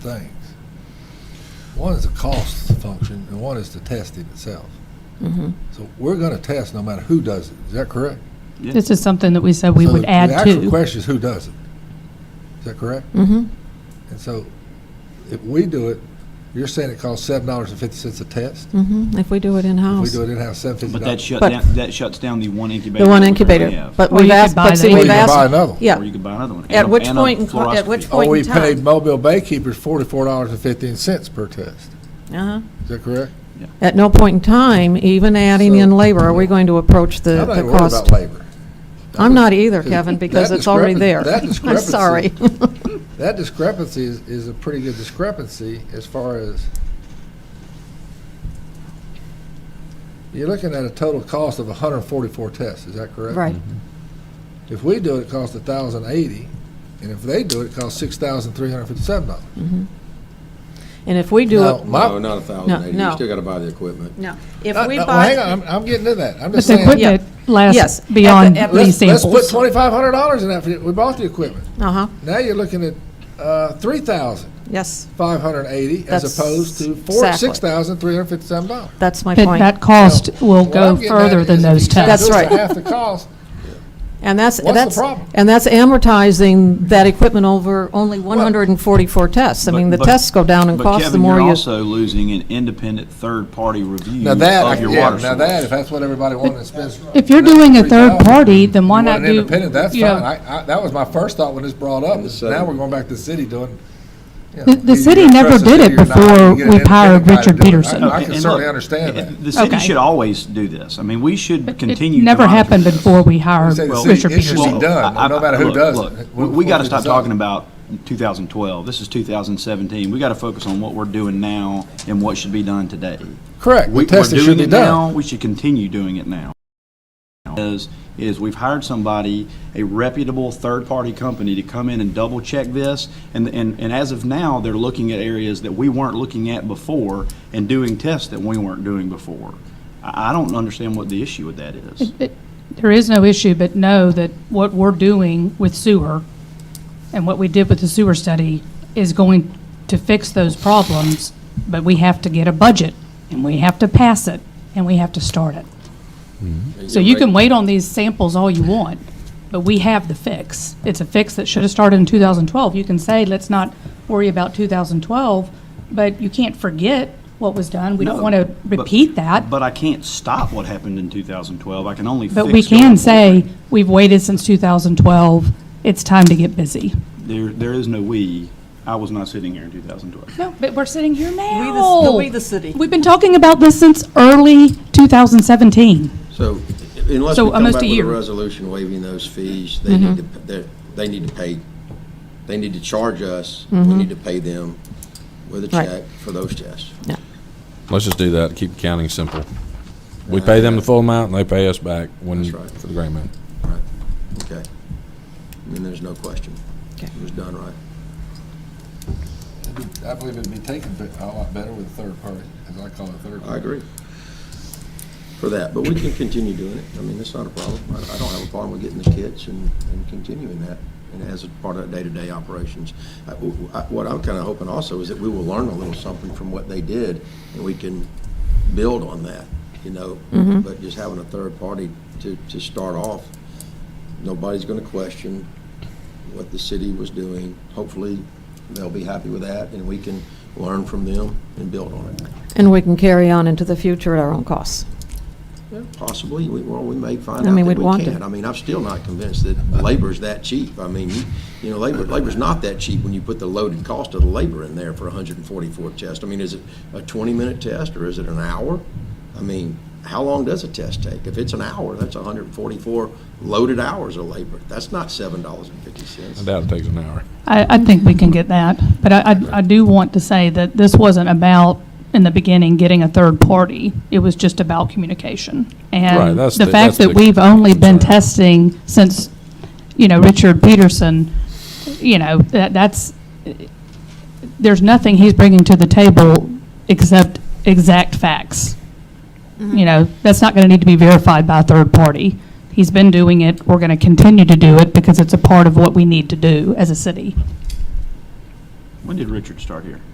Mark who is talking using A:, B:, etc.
A: things. One is the cost function, and one is the testing itself.
B: Mm-hmm.
A: So we're going to test no matter who does it. Is that correct?
C: This is something that we said we
A: So
C: would
A: the-
C: add
A: The actual
C: to.
A: question is who does it? Is that correct?
B: Mm-hmm.
A: And so if we do it, you're saying it costs seven dollars and fifty cents a test?
B: Mm-hmm. If we do it
A: If we
B: in-house,
A: do it in-house, seven fifty
D: But that
A: dollars?
D: shut
B: But-
D: down, that shuts down the one incubator.
B: the one
D: that we currently
B: incubator.
D: have.
B: But
C: Or you
B: we've
C: could
B: asked,
C: buy
B: but see,
C: the-
A: Or you
B: we've
A: can buy
B: asked,
A: another. one.
D: Or
B: yeah.
D: you could buy another one.
B: At
D: And a-
B: which
D: and a
B: point, in co- at
D: fluoroscopy.
B: which
A: Or
B: point
A: we
B: in
A: paid
B: time?
A: Mobile Bay Keepers forty-four dollars and fifteen cents per test.
B: Uh-huh.
A: Is that correct?
B: At no point in time, even adding in
A: So-
B: labor, are we going to approach the
A: I'm not
B: the
A: even worried
B: cost?
A: about labor.
B: I'm not either, Kevin, because
A: That
B: it's already
A: discrepan-
B: there.
A: that
B: I'm
A: discrepancy-
B: sorry.
A: That discrepancy is, is a pretty good discrepancy as far as you're looking at a total cost of hundred and forty-four tests, is that correct? Mm-hmm.
B: Right.
A: If we do it, it costs thousand eighty, and if they do it, it costs six thousand three hundred fifty-seven dollars.
B: And if we do it,
E: No, not a thousand eighty,
B: no.
E: you still gotta buy the equipment.
B: no, if
A: No,
B: we
A: no, well,
B: buy.
A: hang on, I'm, I'm getting to that. I'm
C: But
A: just
C: the
A: saying.
C: equipment
B: Yes.
C: lasts
B: At the-
C: beyond
B: at the-
A: Let's,
C: these
A: let's put
C: samples.
A: twenty-five hundred dollars in that. for- We bought the equipment.
B: Uh-huh,
A: Now you're looking at uh, three thousand
B: yes,
A: five hundred eighty as
B: That's
A: opposed to four
B: exactly.
A: six thousand three hundred fifty-seven dollars.
B: that's my
C: But
B: point.
C: that cost will
A: What I'm
C: go
A: getting at
C: further
A: is
C: than
A: if
C: those
A: you try to
C: tests.
A: do
B: That's
A: it
B: right.
A: for Half the cost.
B: And that's,
A: What's the
B: that's,
A: problem?
B: and that's amortizing that equipment over only 144 tests. I mean, the
D: But- but-
B: tests go down in
D: but
B: cost the
D: Kevin,
B: more
D: you're
B: you.
D: also losing an independent third-party review
A: Now that, I-
D: of your
A: yeah,
D: water
A: now that, if
D: source.
A: that's what everybody wanted to spend.
C: If you're doing a third
A: $3,000,
C: party, then why
A: you
C: not
A: want an
C: do,
A: Independent, that's
C: you know,
A: fine. I, I, that was my first thought when this brought up.
D: uh,
E: the
A: Now
E: second-
A: we're going back to the city doing. you know,
C: The- the
A: you
C: city
A: either
C: never
A: trust the
C: did
A: city
C: it
A: or not,
C: before
A: you get an
C: we
A: independent
C: hired
A: guy to
C: Richard
A: do it. I-
C: Peterson.
A: I
D: And
A: can
D: look,
A: certainly understand that.
D: The city
C: Okay.
D: should always do this. I mean, we should continue.
C: it
D: to
C: never
D: monitor
C: happened
D: this.
C: before we hired
A: say the city-
C: Richard
A: it should be
C: Peterson.
A: done.
D: I-
A: no
D: I-
A: matter who
D: look,
A: does it.
D: look,
A: It-
D: we-
A: we-
D: We got to
A: we
D: stop
A: decide.
D: talking about 2012. This is 2017. We got to focus on what we're doing now and what should be done today.
A: Correct.
D: We-
A: The
D: We're
A: testing
D: doing
A: should be
D: it
A: done.
D: now. We should continue doing it now. Is, is we've hired somebody, a reputable third-party company to come in and double-check this. And, and, and as of now, they're looking at areas that we weren't looking at before and doing tests that we weren't doing before. I, I don't understand what the issue with that is.
C: It- There is no issue, but know that what we're doing with sewer and what we did with the sewer study is going to fix those problems, but we have to get a budget, and we have to pass it, and we have to start it.
D: Mm-hmm.
C: So you can wait on these samples all you want, but we have the fix. It's a fix that should have started in 2012. You can say, let's not worry about 2012, but you can't forget what was done. We don't
D: No,
C: want to
D: but-
C: repeat that.
D: But I can't stop what happened in 2012. I can only fix.
C: But we
D: going
C: can
D: forward.
C: say, we've waited since 2012, it's time to get busy.
D: There, there is no we. I was not sitting here in 2012.
C: No, but we're sitting here
B: the- we, the city.
C: We've been talking about this since early 2017.
E: So unless
C: So
E: we come
C: almost a
E: back with a
C: year.
E: resolution waiving those fees, they need to, they're- they need to pay, they need to charge us, we need to pay them with a
B: Right.
E: check for those tests.
F: Let's just do that, keep accounting simple. We pay them the full amount, and they pay us back when,
E: That's right.
F: for the gray man.
E: Right, okay. And then there's no question. It was done right.
A: I believe it'd be taken be- a lot better with a third party, as I call it, third party.
E: I agree for that, but we can continue doing it. I mean, that's not a problem. I I don't have a problem with getting the kits and, and continuing that and as a part of day-to-day operations. I- w- I- What I'm kind of hoping also is that we will learn a little something from what they did and we can build on that, you know? But just having a third party to, to start off, nobody's going to question what the city was doing. Hopefully, they'll be happy with that and we can learn from them and build on it.
B: And we can carry on into the future at our own costs.
E: Yeah, Possibly, we, well, we may find
B: I
E: out
B: mean,
E: that
B: we'd want
E: we
B: to.
E: can't. I mean, I'm still not convinced that labor's that cheap. I mean, you- you know, labor, labor's not that cheap when you put the loaded cost of the labor in there for hundred and forty-four tests. I mean, is it a twenty-minute test or is it an hour? I mean, how long does a test take? If it's an hour, that's hundred and forty-four loaded hours of labor. That's not seven dollars and fifty
F: I
E: cents.
F: doubt it takes an hour.
C: I, I think we can get that, but I, I- I do want to say that this wasn't about, in the beginning, getting a third party. It was just about communication.
F: Right,
C: And
F: that's
C: the
F: the-
C: fact
F: that's
C: that
F: the
C: we've only been
F: concern.
C: testing since, you know, Richard Peterson, you know, that, that's, there's nothing he's bringing to the table except exact facts. You know, that's not going to need to be verified by a third party. He's been doing it, we're going to continue to do it because it's a part of what we need to do as a city.
D: When did Richard start here?